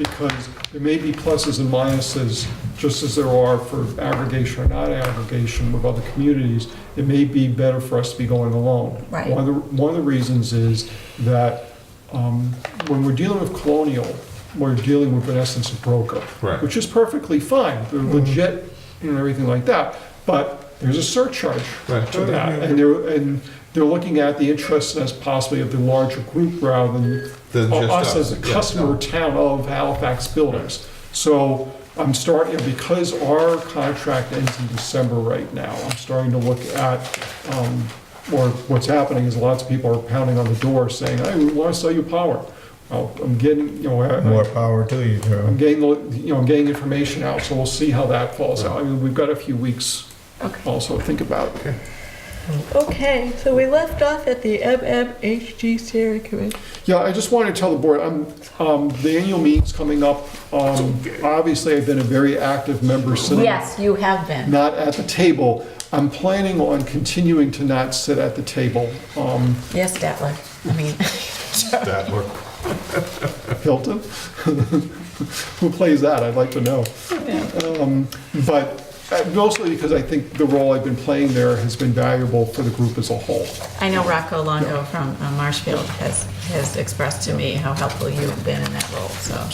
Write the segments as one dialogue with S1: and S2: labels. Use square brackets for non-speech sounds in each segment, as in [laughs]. S1: because there may be pluses and minuses, just as there are for aggregation or not aggregation with other communities. It may be better for us to be going alone.
S2: Right.
S1: One of the, one of the reasons is that um, when we're dealing with colonial, we're dealing with, in essence, a broker.
S3: Right.
S1: Which is perfectly fine, they're legit and everything like that, but there's a surcharge
S3: Right.
S1: to that. And they're, and they're looking at the interests as possibly of the larger group rather than
S3: Than
S1: or
S3: just
S1: Oh, us
S3: us,
S1: as a
S3: yeah, no.
S1: customer town of Halifax builders. So I'm starting, because our contract ends in December right now, I'm starting to look at, um, or what's happening is lots of people are pounding on the door saying, hey, we want to sell you power. Well, I'm getting, you know, I-
S4: More power to you,
S1: I'm
S4: Joe.
S1: getting, the- you know, I'm getting information out, so we'll see how that falls out. I mean, we've got a few weeks
S2: Okay.
S1: also to think about.
S2: Okay, so we left off at the MMHG Steering Committee.
S1: Yeah, I just wanted to tell the board, I'm, um, the annual meeting's coming up. Um, obviously, I've been a very active member sitting.
S2: Yes, you have been.
S1: Not at the table. I'm planning on continuing to not sit at the table. Um,
S2: Yes, Statler. I mean, [laughs]
S3: That work.
S1: Hilton? [laughs] Who plays that? I'd like to know. Um, But uh, mostly because I think the role I've been playing there has been valuable for the group as a whole.
S2: I know Rocco Longo from uh, Marshfield has, has expressed to me how helpful you have been in that role, so. I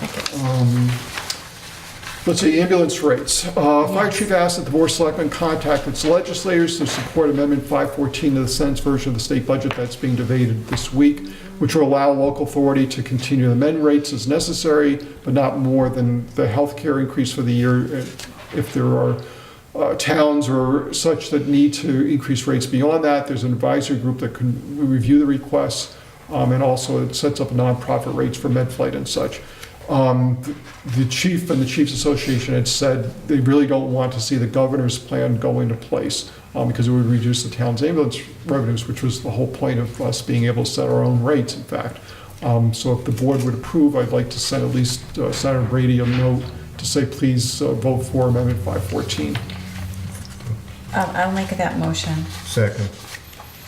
S2: think it-
S1: Let's see, ambulance rates. Uh, Fire
S2: Yes.
S1: chief asked that the board of selectmen contact its legislators to support amendment 514 to the Senate's version of the state budget that's being debated this week, which will allow local authority to continue to amend rates as necessary, but not more than the health care increase for the year uh, if there are uh, towns or such that need to increase rates beyond that. There's an advisory group that can review the requests, um, and also it sets up nonprofit rates for med flight and such. Um, th- The chief and the chiefs association had said they really don't want to see the governor's plan go into place um, because it would reduce the town's ambulance revenues, which was the whole point of us being able to set our own rates, in fact. Um, So if the board would approve, I'd like to send at least uh, Senator Brady a note to say, please uh, vote for Amendment 514.
S5: Um, I'll make that motion.
S4: Second.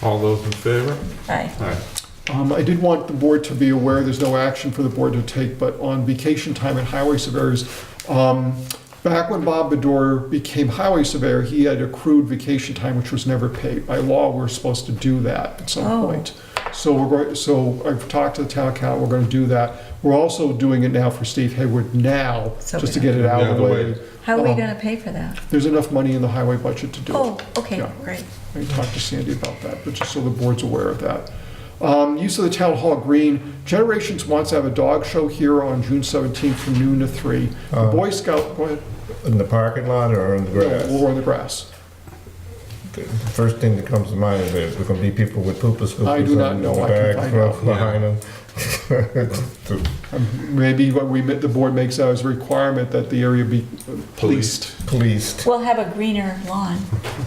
S3: All those in favor?
S5: Aye.
S3: All right.
S1: Um, I did want the board to be aware, there's no action for the board to take, but on vacation time and highway surveyors, um, back when Bob Bedore became highway surveyor, he had accrued vacation time, which was never paid. By law, we're supposed to do that at some
S5: Oh.
S1: point. So we're, going- so I've talked to the town accountant, we're gonna do that. We're also doing it now for Steve Hayward now,
S2: So
S1: just to
S2: we-
S1: get it out
S3: Yeah,
S1: of the
S3: the
S1: way.
S3: way.
S5: How are we
S1: Um,
S5: gonna pay for that?
S1: There's enough money in the highway budget to do it.
S5: Oh, okay,
S1: Yeah.
S5: great.
S1: I talked to Sandy about that, but just so the board's aware of that. Um, Use of the town hall green. Generations wants to have a dog show here on June 17th from noon to three. The
S4: Uh,
S1: Boy Scout, go ahead,
S4: In the parking lot or in the grass?
S1: we're on the grass.
S4: The first thing that comes to mind is there's going to be people with pooper scoopers.
S1: I do not
S4: and
S1: know. I can
S4: Bags
S1: find out.
S4: behind them. [laughs]
S1: Maybe what we, the board makes out as a requirement that the area be policed.
S4: Policed.
S5: We'll have a greener lawn.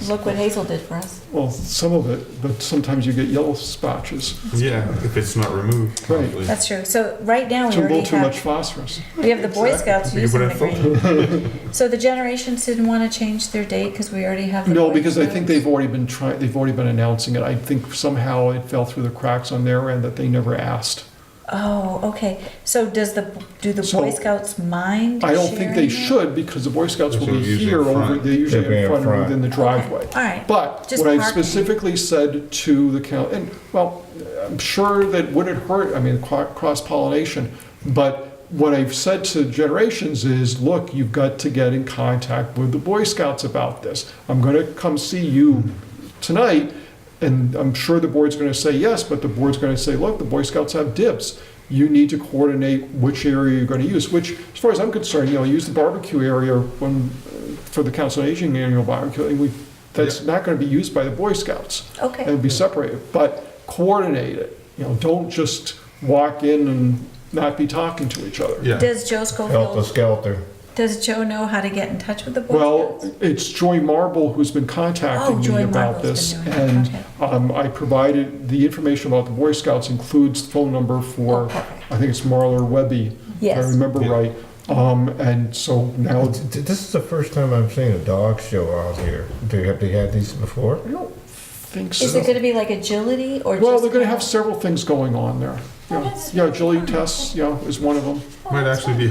S5: Look what Hazel did for us.
S1: Well, some of it, but sometimes you get yellow spotches.
S3: Yeah, if it's not removed.
S1: Right.
S3: probably.
S5: That's true. So right now,
S1: It's
S5: we
S1: a little
S5: already
S1: too much
S5: have,
S1: phosphorus.
S5: we have the Boy Scouts
S3: You
S5: using
S3: would
S5: the
S3: have
S5: green.
S1: [laughs]
S5: So the Generations didn't wanna change their date because we already have the
S1: No,
S5: Boy
S1: because I think
S5: Scouts?
S1: they've already been trying, they've already been announcing it. I think somehow it fell through the cracks on their end that they never asked.
S5: Oh, okay. So does the, do the
S1: So-
S5: Boy Scouts mind
S1: I don't think
S5: sharing
S1: they
S5: it?
S1: should, because the Boy Scouts will
S3: They're
S1: be
S3: usually
S1: here
S3: in front.
S1: over, they're usually
S4: They'll be
S1: in
S4: in
S1: front or
S4: front.
S1: within the driveway.
S5: All right.
S1: But
S5: Just
S1: what I
S5: parking.
S1: specifically said to the count, and, well, I'm sure that wouldn't hurt, I mean, cro- cross-pollination, but what I've said to generations is, look, you've got to get in contact with the Boy Scouts about this. I'm gonna come see you tonight, and I'm sure the board's gonna say yes, but the board's gonna say, look, the Boy Scouts have dibs. You need to coordinate which area you're gonna use, which, as far as I'm concerned, you know, use the barbecue area when, for the Council on Aging annual barbecue, and we, that's not gonna be used by the Boy Scouts.
S5: Okay.
S1: It'll be separated, but coordinate it, you know, don't just walk in and not be talking to each other.
S3: Yeah.
S5: Does Joe
S4: Helter
S5: Schofield,
S4: skelter.
S5: does Joe know how to get in touch with the Boy
S1: Well,
S5: Scouts?
S1: it's Joy Marble who's been contacting
S5: Oh, Joy
S1: me about
S5: Marble's
S1: this.
S5: been doing it,
S1: And
S5: okay.
S1: um, I provided, the information about the Boy Scouts includes the phone number
S5: Oh,
S1: for,
S5: perfect.
S1: I think it's Marla Webby, if I
S5: Yes.
S1: remember
S3: Yeah.
S1: right. Um, And so now,
S4: Th- th- This is the first time I've seen a dog show out here. Do- Have they had these before?
S1: I don't think so.
S5: Is it gonna be like agility or just? Oh,
S1: Well, they're gonna
S5: kind
S1: have
S5: of-
S1: several things going on there.
S5: Yeah, Yeah, Julie Tess, yeah, is one of them.
S1: Might actually be